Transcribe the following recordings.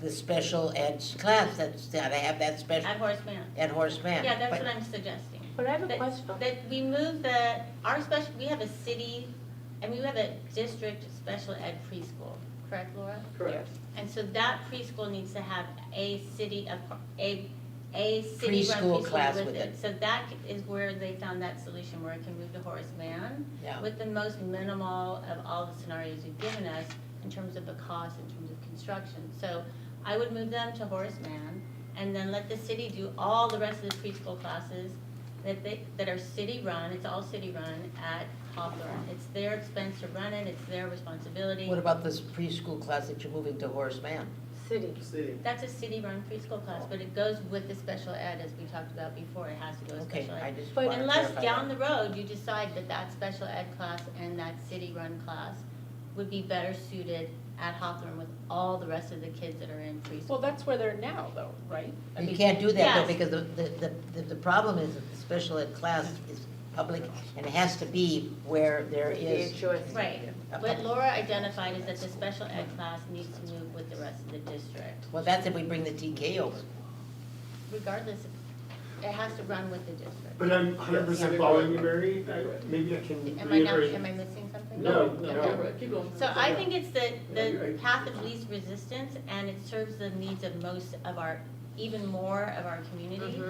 the special ed class that's, that I have that special, at Horace Mann. at Horace Mann. Yeah, that's But- what I'm suggesting. But I have a That- question. That we move the, our special, we have a city, and we have a district special ed preschool, correct, Laura? Correct. And so that preschool needs to have a city, of a, a city-run Preschool class preschool with with it. it. So that is where they found that solution, where it can move to Horace Mann Yeah. with the most minimal of all the scenarios you've given us in terms of the cost, in terms of construction. So I would move them to Horace Mann and then let the city do all the rest of the preschool classes that they, that are city-run, it's all city-run at Hawthorne. It's their expense to run it, it's their responsibility. What about this preschool class that you're moving to Horace Mann? City. City. That's a city-run preschool class, but it goes with the special ed, as we talked about before, it has to go with Okay, special I ed. just But wanna wanna Unless clarify down that. the road, you decide that that special ed class and that city-run class would be better suited at Hawthorne with all the rest of the kids that are in Well, preschool. that's where they're now, though, right? I You mean, can't do that though, Yes. because the, the, the, the problem is that the special ed class is public and it has to be where there is. Your choice. Right, a what pub- Laura identified is that the special ed class needs to move with the rest of the district, Well, that's if we bring the TK over. regardless, of- it has to run with the district. But I'm hundred percent Yes. following you, Mary, I- maybe I can Am I not, reiterate. am I missing something? No, No, no. no, keep going. So I think it's the, Yeah, you're the right. path of least resistance, and it serves the needs of most of our, even more of our Mm-hmm. community,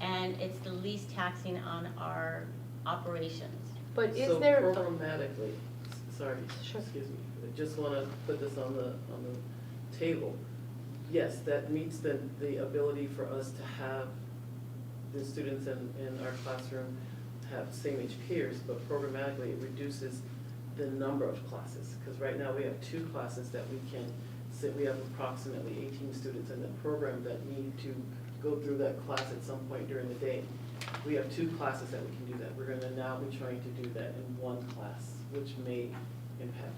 and it's the least taxing on our operations. But is So there, programmatically, s- sorry, Sure. excuse me, I just wanna put this on the, on the table. Yes, that meets the, the ability for us to have the students in, in our classroom have same age peers, but programmatically it reduces the number of classes. Cause right now we have two classes that we can sit, we have approximately eighteen students in the program that need to go through that class at some point during the day. We have two classes that we can do that. We're gonna now be trying to do that in one class, which may impact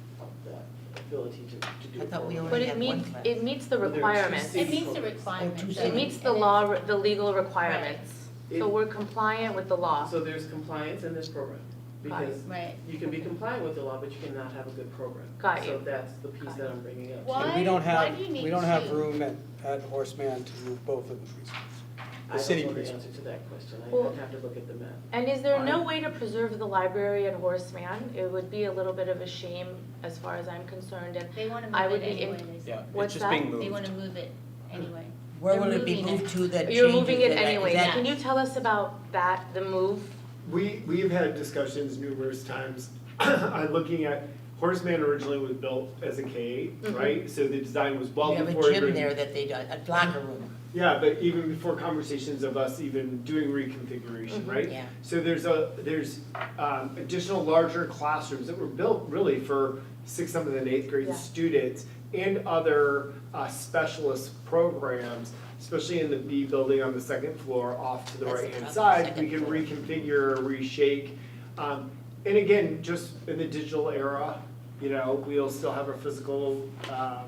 that ability to, to do. I thought we it. only but had it one meets, class. it meets the There are two requirements. seats. It meets the requirements. It meets the law, re- the legal requirements. So It- we're compliant with the law. So there's compliance in this program, because Right. you can be compliant with the law, but you cannot have a good program. Got So you. that's the piece that I'm bringing up. Why- And we don't why have, do you need we don't have two? room at, at Horseman to move both of the preschools. I city don't know the preschool. answer to that question. Well- I'd have to look at the map. And is there no Fine. way to preserve the library at Horace Mann? It would be a little bit of a shame as far as I'm concerned and They wanna I move it would be in- anyway, they say. What's just being They wanna move it anyway. Where They're will it be moving it. moved to that changes? you're moving it that I- is anyway. that- Can you tell us about that, the move? We, we've had discussions numerous times on looking at, Horseman originally was built as a K, Mhm. right? So the design was well You Mm-hmm. have before. a gym even- there that they, do- a locker room, Yeah, but even before conversations of us even doing reconfiguration, Mhm. right? Mm-hmm, yeah. So there's a, there's um, additional larger classrooms that were built really for sixth, seventh, and eighth grade Yeah. students and other uh, specialist programs, especially in the B building on the second floor off to the That's the right-hand top, side. We second can floor. reconfigure, reshake. Um, And again, just in the digital era, you know, we'll still have our physical um,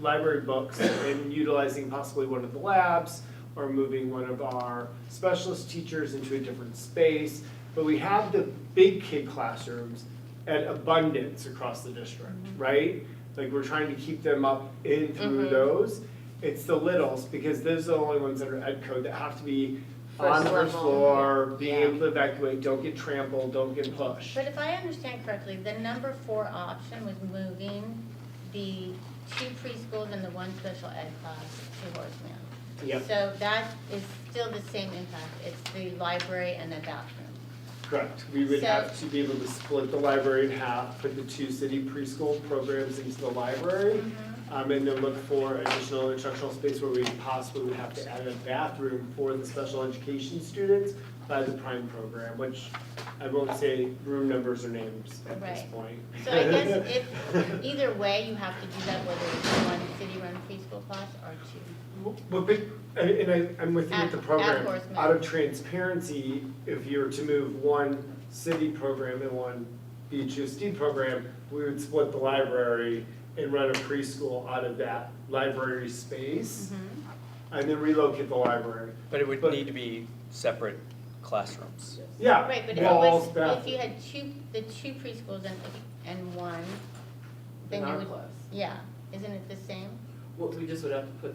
library books and utilizing possibly one of the labs or moving one of our specialist teachers into a different space. But we have the big kid classrooms at abundance across the district, Mm-hmm. right? Like we're trying to keep them up in through Mhm. those. It's the littles because those are the only ones that are ed code that have to be on First the first level. floor, being Yeah. able to evacuate, don't get trampled, don't get pushed. But if I understand correctly, the number four option was moving the two preschools and the one special ed class to Horace Mann. Yeah, So that is still the same impact, it's the library and the bathroom. correct. We would So- have to be able to split the library in half, put the two city preschool programs into the library. Mm-hmm. Um, and then look for additional instructional space where we possibly would have to add a bathroom for the special education students by the prime program, which I won't say room numbers or names at this Right. point. So I guess if, either way, you have to do that, whether it's one city-run preschool class or two. Well, but, and and I, I'm with you with At- the at program. Horace Mann. Out of transparency, if you were to move one city program and one BHUSD program, we would split the library and run a preschool out of that library space Mm-hmm. Mm-hmm. and then relocate the library. But it would But- need to be separate classrooms. Yeah, Right, but if it walls, was, bathroom. if you had two, the two preschools and, and one, In then you our would, class, yeah, isn't it the same? what, we just would have to put